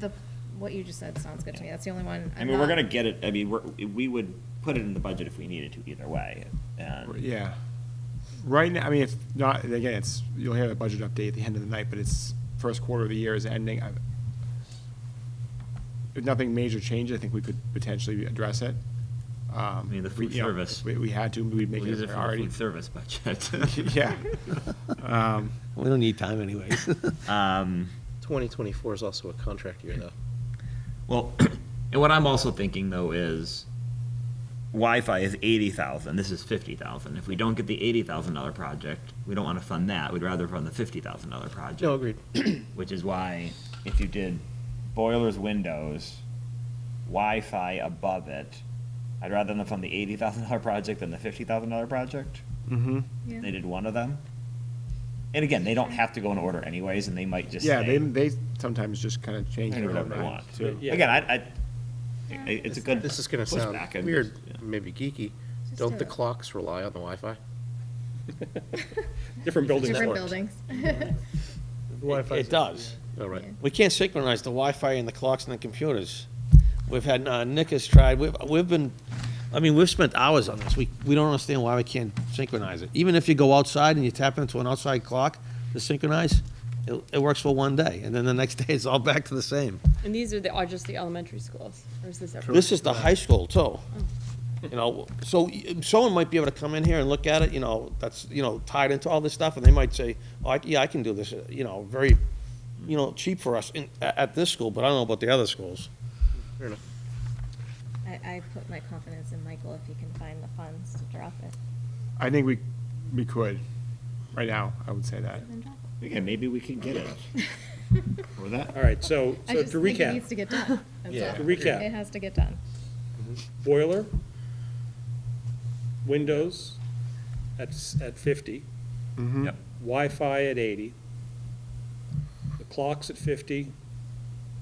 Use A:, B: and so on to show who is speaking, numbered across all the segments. A: the, what you just said sounds good to me. That's the only one.
B: I
A: I'm
B: mean, we're
A: not-
B: gonna get it, I mean, we're, we would put it in the budget if we needed to either way, and.
C: Yeah. Right now, I mean, if not, and again, it's, you'll have a budget update at the end of the night, but it's first quarter of the year is ending. I- If nothing major changes, I think we could potentially address it. I
D: mean, the food service.
C: We, we had to, we'd make
D: We'll
C: it
D: use
C: a
D: it for the
C: priority.
D: food service budget.
C: Yeah. Um,
E: We don't need time anyways.
D: Um,
F: 2024 is also a contract year, though.
D: Well, and what I'm also thinking though is Wi-Fi is eighty thousand. This is fifty thousand. If we don't get the eighty thousand dollar project, we don't want to fund that. We'd rather fund the fifty thousand dollar project.
F: No, agreed.
D: Which is why if you did boilers, windows, Wi-Fi above it, I'd rather them fund the eighty thousand dollar project than the fifty thousand dollar project.
C: mhm.
A: Yeah.
D: They did one of them. And again, they don't have to go in order anyways, and they might just
C: Yeah, they,
D: say-
C: they sometimes just kind of change.
B: They
C: it
B: do whatever they
C: overnight,
B: want.
C: too.
F: Yeah.
B: Again, I, I, I- it's a good.
F: This is going to sound
B: pushback, I'm
F: weird,
B: just- yeah.
F: maybe geeky.
A: Just do
F: Don't the
A: it.
F: clocks rely on the Wi-Fi?
A: Different buildings. Different
F: worked.
A: buildings.
E: It does.
F: Oh, right.
E: We can't synchronize the Wi-Fi and the clocks and the computers. We've had, uh, Nick has tried, we've, we've been, I mean, we've spent hours on this. We, we don't understand why we can't synchronize it. Even if you go outside and you tap into an outside clock to synchronize, it, it works for one day, and then the next day it's all back to the same.
G: And these are the, are just the elementary schools, or is this everything?
E: This is the high school too. You know, so y- someone might be able to come in here and look at it, you know, that's, you know, tied into all this stuff, and they might say, oh, I- yeah, I can do this, uh, you know, very, you know, cheap for us in, at, at this school, but I don't know about the other schools.
F: Fair enough.
A: I, I put my confidence in Michael if he can find the funds to drop it.
C: I think we, we could, right now, I would say that.
A: Then drop
B: Again, maybe we can get it. Or that,
H: All right, so,
A: it. I
H: so
A: just
H: to
A: think it needs
H: recap,
A: to get done. That's
E: Yeah.
A: all.
H: To recap.
A: It has to get done.
H: boiler, windows at, s- at fifty,
C: Mhm.
D: Yep.
H: Wi-Fi at eighty, the clocks at fifty,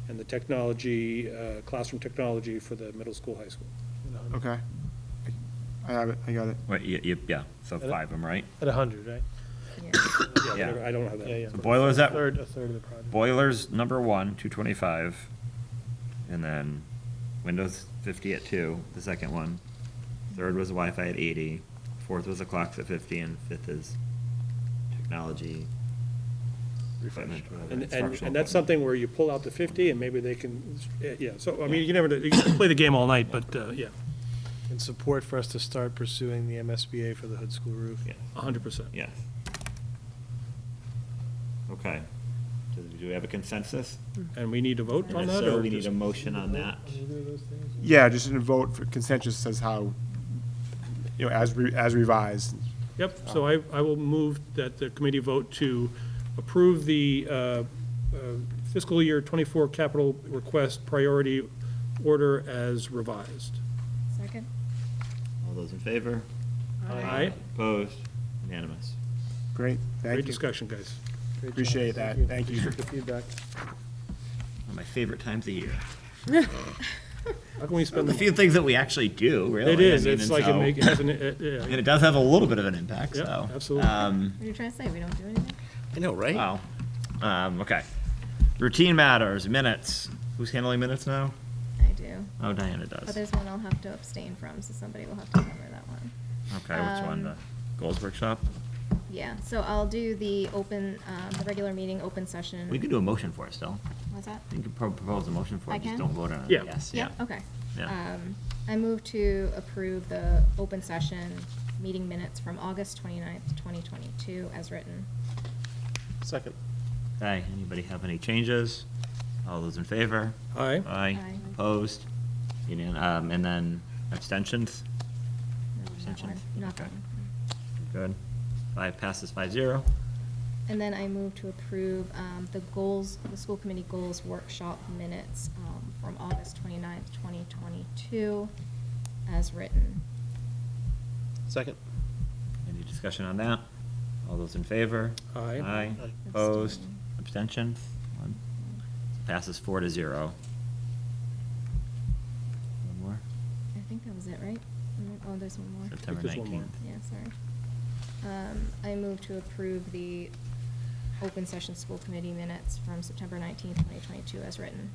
H: and the technology, uh, classroom technology for the middle school, high school.
C: Okay. I have it, I got it.
D: Right, y- y- yeah, so five of them, right?
I: At 100, right?
A: Yeah.
H: Yeah, whatever, I don't have
I: Yeah, yeah.
H: that.
D: So boilers
I: A
D: at,
I: third, a third of the project.
D: boilers number one, two twenty-five, and then Windows fifty at two, the second one. Third was Wi-Fi at eighty, fourth was the clocks at fifty, and fifth is technology. equipment, whatever,
H: And, and,
D: instructional
H: and that's
D: equipment.
H: something where you pull out the fifty and maybe they can, eh, yeah, so, I mean, you never, you can play the game all night, but, uh, yeah,
I: And support for us to start pursuing the MSBA for the hood school roof.
H: a hundred percent.
B: yes. Okay. Do- Do we have a consensus?
H: And we need to vote on
B: And if
H: that,
B: so,
H: or
B: we need
H: just,
B: a motion on that.
C: Yeah, just in a vote for consensus says how, you know, as, re- as revised.
H: yep, so I, I will move that the committee vote to approve the uh, uh, fiscal year twenty-four capital request priority order as revised.
A: Second?
B: All those in favor?
H: All right.
B: Opposed? Unanimous.
C: Great,
H: Great
C: thank you.
H: discussion, guys.
I: Great job.
C: Appreciate that. Thank you.
I: Appreciate the feedback.
D: One of my favorite times of year.
H: How can we
D: One
H: spend
D: of the
H: the?
D: few things that we actually do, really.
H: It is,
D: I mean,
H: it's
D: and
H: like, it
D: so-
H: makes, yeah,
D: And it does have a little bit of an impact,
H: Yeah,
D: so.
H: absolutely.
D: Um,
A: What are you trying to say? We don't do anything?
F: I know, right?
D: Wow. Um, okay. Routine matters, minutes. Who's handling minutes now?
A: I do.
D: Oh, Diana
A: But
D: does.
A: there's one I'll have to abstain from, so somebody will have to cover that one.
D: Okay, which one? The
A: um,
D: goals workshop?
A: Yeah, so I'll do the open, um, the regular meeting, open session.
D: We could do a motion for it still.
A: What's that?
D: You could pro- propose a motion for
A: I
D: it, just
A: can?
D: don't vote on it.
H: Yeah.
D: Yes,
A: Yeah,
D: yeah.
A: okay.
D: Yeah.
A: Um, I move to approve the open session meeting minutes from August 29th, 2022, as written.
F: Second.
D: Okay, anybody have any changes? All those in favor?
H: Aye.
D: Aye.
A: Aye.
D: Opposed? Union, um, and then abstentions?
A: No, Not one,
D: Abstentions?
A: not that
D: Okay.
A: one.
D: Good. Five passes five zero.
A: And then I move to approve um, the goals, the school committee goals workshop minutes um, from August 29th, 2022, as written.
F: Second.
D: Any discussion on that? All those in favor?
H: Aye.
D: Aye.
F: Aye.
D: Opposed?
A: Abstain.
D: Abstention? One. Passes four to zero. One more?
A: I think that was it, right? Mm, Oh, there's one more.
D: September
H: there's one more.
D: nineteenth.
A: Yeah, sorry. Um, I move to approve the open session school committee minutes from September 19th, 2022, as written.